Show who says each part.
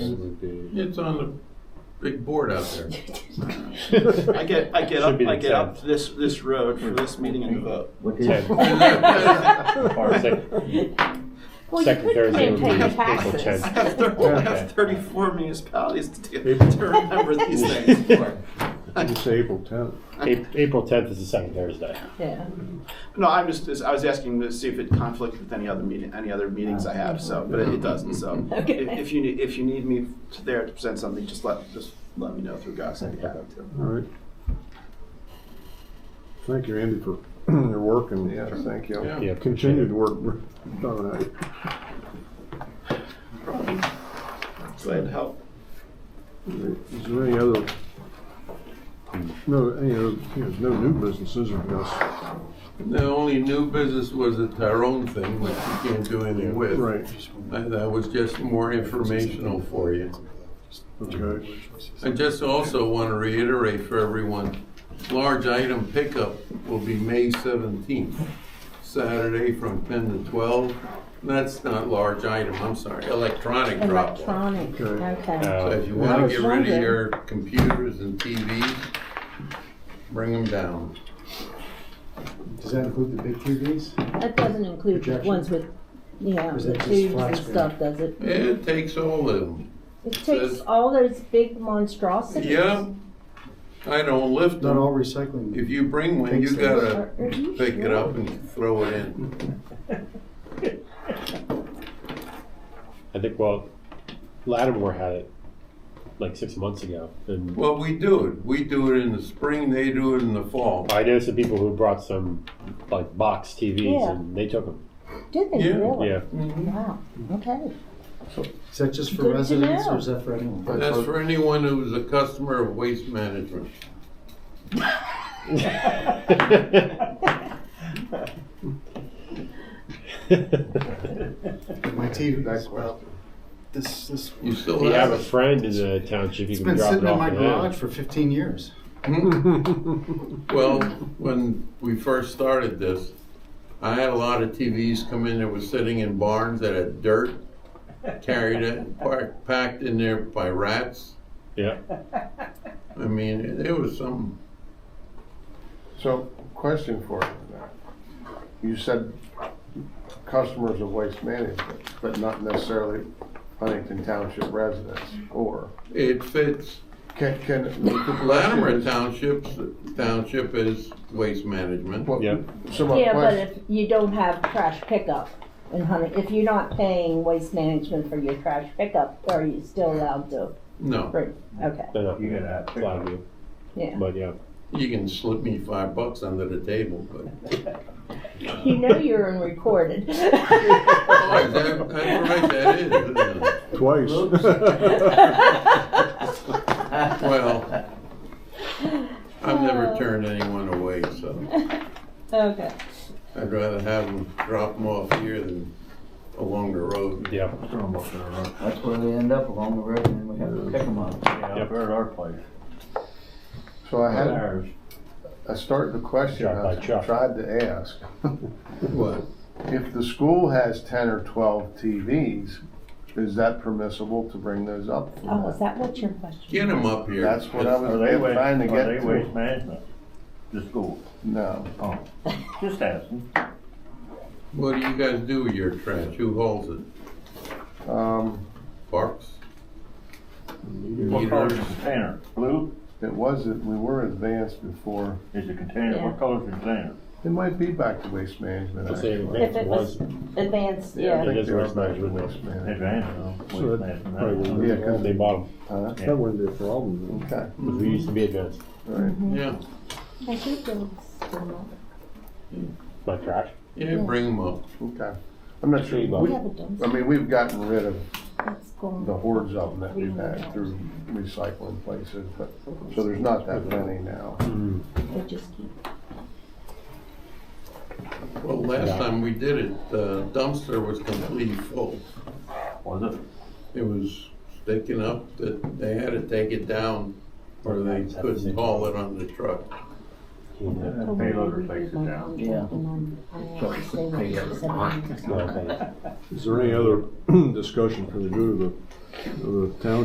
Speaker 1: It's on the big board out there.
Speaker 2: I get, I get
Speaker 3: Should
Speaker 2: up,
Speaker 3: be the
Speaker 2: I get
Speaker 3: tenth.
Speaker 2: up this, this road for this meeting and vote.
Speaker 4: What is?
Speaker 3: Ten. Or sec-
Speaker 5: Well, you
Speaker 3: Second
Speaker 5: could
Speaker 3: Thursday
Speaker 5: claim
Speaker 3: would be
Speaker 5: paying
Speaker 3: April
Speaker 5: taxes.
Speaker 2: I
Speaker 3: tenth.
Speaker 2: have, thir- I
Speaker 3: Okay.
Speaker 2: have thirty-four municipalities to, do- to remember these things for.
Speaker 6: It's April 10th.
Speaker 3: A- April tenth is the second Thursday.
Speaker 5: Yeah.
Speaker 2: No, I'm just, just- I was asking to see if it conflicted with any other meeting, any other meetings I have, so, but it it doesn't, so. if-
Speaker 5: Okay.
Speaker 2: If you, need- if you need me to- there to present something, just let, just let me know through Gus, I'd be happy
Speaker 6: All
Speaker 2: to.
Speaker 6: right. Thank you, Andy, for your work and
Speaker 4: Yeah, thank you.
Speaker 1: Yeah.
Speaker 3: Yeah,
Speaker 6: continued work. All right.
Speaker 2: Glad to help.
Speaker 6: Is there any other, no, any other, you know, no new businesses, I guess.
Speaker 1: The only new business was the Tyrone thing, which you can't do anything with.
Speaker 6: Right,
Speaker 1: And that was just more informational for you.
Speaker 6: okay.
Speaker 1: I just also want to reiterate for everyone, large item pickup will be May 17th, Saturday from 10 to 12. That's not large item, I'm sorry, electronic drop off.
Speaker 5: Electronic,
Speaker 6: Okay.
Speaker 5: okay.
Speaker 1: So
Speaker 3: Uh,
Speaker 1: if you
Speaker 6: Yeah, I
Speaker 1: want to
Speaker 6: was
Speaker 1: get rid of
Speaker 5: wondering.
Speaker 1: your computers and TVs, bring them down.
Speaker 7: Does that include the big TVs?
Speaker 5: That doesn't include the
Speaker 7: Projection.
Speaker 5: ones with, yeah,
Speaker 7: Is
Speaker 5: the
Speaker 7: that just
Speaker 5: tubes
Speaker 7: flat
Speaker 5: and
Speaker 7: screen?
Speaker 5: stuff, does it?
Speaker 1: It takes all of them.
Speaker 5: It takes all those big monstrosities.
Speaker 1: Yeah, I don't lift
Speaker 7: Not all
Speaker 1: them.
Speaker 7: recycling.
Speaker 1: If you bring one, you
Speaker 7: Thanks,
Speaker 1: gotta
Speaker 5: Are- are you
Speaker 1: pick it
Speaker 5: sure?
Speaker 1: up and throw it in.
Speaker 3: I think, well, Lattimore had it like six months ago. And
Speaker 1: Well, we do it. We do it in the spring, they do it in the fall.
Speaker 3: I know some people who brought some like box TVs
Speaker 5: Yeah.
Speaker 3: and they took them.
Speaker 5: Did they
Speaker 1: Yeah.
Speaker 5: really?
Speaker 3: Yeah.
Speaker 5: Wow, okay.
Speaker 7: Is that just
Speaker 5: Good
Speaker 7: for
Speaker 5: to
Speaker 7: residents
Speaker 5: know.
Speaker 7: or is that for anyone?
Speaker 1: That's for anyone who's a customer of Waste Management.
Speaker 7: My TV, well, this, this,
Speaker 1: You still
Speaker 3: You have a
Speaker 1: have it?
Speaker 3: friend in the township, you
Speaker 7: it's
Speaker 3: can
Speaker 7: been
Speaker 3: drop
Speaker 7: sitting
Speaker 3: it
Speaker 7: in
Speaker 3: off
Speaker 7: my
Speaker 3: to them.
Speaker 7: garage for fifteen years.
Speaker 1: Well, when we first started this, I had a lot of TVs come in that were sitting in barns that had dirt carried it, par- packed in there by rats.
Speaker 3: Yeah,
Speaker 1: I mean, it- it was some,
Speaker 4: So, question for you. You said customers of waste management, but not necessarily Huntington Township residents, or?
Speaker 1: it fits.
Speaker 4: Can, can. the question
Speaker 1: Latimer
Speaker 4: is-
Speaker 1: Township's, township is Waste Management.
Speaker 4: Well,
Speaker 3: Yeah.
Speaker 4: So my
Speaker 5: Yeah, but
Speaker 4: question,
Speaker 5: if you don't have trash pickup in Hunter, if you're not paying waste management for your trash pickup, are you still allowed to
Speaker 1: No,
Speaker 5: bring? Okay,
Speaker 3: they're not
Speaker 6: You gotta have
Speaker 3: a lot of you,
Speaker 5: yeah.
Speaker 3: but yeah.
Speaker 1: you can slip me five bucks under the table, but.
Speaker 5: You know you're unrecorded.
Speaker 1: Oh, is that- that's right, that is, isn't it?
Speaker 6: Twice.
Speaker 1: Well, I've never turned anyone away, so
Speaker 5: Okay.
Speaker 1: I'd rather have them drop them off here than along the road.
Speaker 3: Yeah.
Speaker 4: Well,
Speaker 8: That's where they end up along the road and then we have to pick them up.
Speaker 3: Yep.
Speaker 6: at our place.
Speaker 4: so I had, I started the question,
Speaker 3: Shot by
Speaker 4: I
Speaker 3: Chuck.
Speaker 4: tried to ask.
Speaker 1: What?
Speaker 4: If the school has ten or twelve TVs, is that permissible to bring those up? for
Speaker 5: Oh,
Speaker 4: that?
Speaker 5: is that what your question?
Speaker 1: Get them up here.
Speaker 4: That's what I was
Speaker 9: Are they waste,
Speaker 4: trying to
Speaker 9: are
Speaker 4: get
Speaker 9: they waste
Speaker 4: to.
Speaker 9: management? The school, Oh.
Speaker 4: No.
Speaker 9: just asking.
Speaker 1: What do you guys do with your trash? Who holds it?
Speaker 4: Um,
Speaker 1: Parks?
Speaker 9: What color is
Speaker 1: Meters?
Speaker 9: the container? Blue
Speaker 4: it wasn't, we were advanced before.
Speaker 9: is the container,
Speaker 5: Yeah.
Speaker 9: what color is the container?
Speaker 4: It might be back to waste management.
Speaker 3: Let's say
Speaker 4: actually.
Speaker 5: If it
Speaker 3: advanced
Speaker 5: was
Speaker 3: was,
Speaker 5: advanced,
Speaker 4: I
Speaker 5: yeah.
Speaker 3: Yeah.
Speaker 4: think
Speaker 3: is
Speaker 4: they were
Speaker 3: waste
Speaker 4: back to
Speaker 3: management.
Speaker 4: waste management.
Speaker 9: Advanced,
Speaker 6: So that-
Speaker 9: waste management.
Speaker 6: probably
Speaker 9: that's-
Speaker 6: wouldn't-
Speaker 4: Yeah, 'cause- Uh,
Speaker 3: they bought them,
Speaker 4: Huh?
Speaker 6: That wouldn't be a problem.
Speaker 4: Okay,
Speaker 3: because we used to be advanced,
Speaker 4: all right.
Speaker 1: Yeah,
Speaker 5: I think there was still not-
Speaker 3: my trash.
Speaker 1: yeah, bring them up.
Speaker 4: Okay. I'm not sure,
Speaker 3: Tree
Speaker 5: We
Speaker 4: we-
Speaker 5: have a dumpster
Speaker 4: I mean, we've gotten rid of
Speaker 5: that's going.
Speaker 4: the hordes of them that we've had through recycling places, but, so there's not that many now.
Speaker 5: They just keep.
Speaker 1: Well, last time we did it, the dumpster was completely full.
Speaker 9: Was it?
Speaker 1: It was sticking up that they had to take it down or they couldn't haul it on the truck.
Speaker 9: And
Speaker 5: Oh,
Speaker 9: the
Speaker 5: maybe
Speaker 9: payloader
Speaker 5: we
Speaker 9: takes
Speaker 5: did
Speaker 9: it
Speaker 5: my
Speaker 9: down.
Speaker 5: contract and uh, I'm- I'm
Speaker 8: So
Speaker 5: actually saying
Speaker 8: they
Speaker 5: that
Speaker 8: have
Speaker 5: it's seven years.
Speaker 3: No, thanks.
Speaker 6: Is there any other discussion for the good of the, of the town?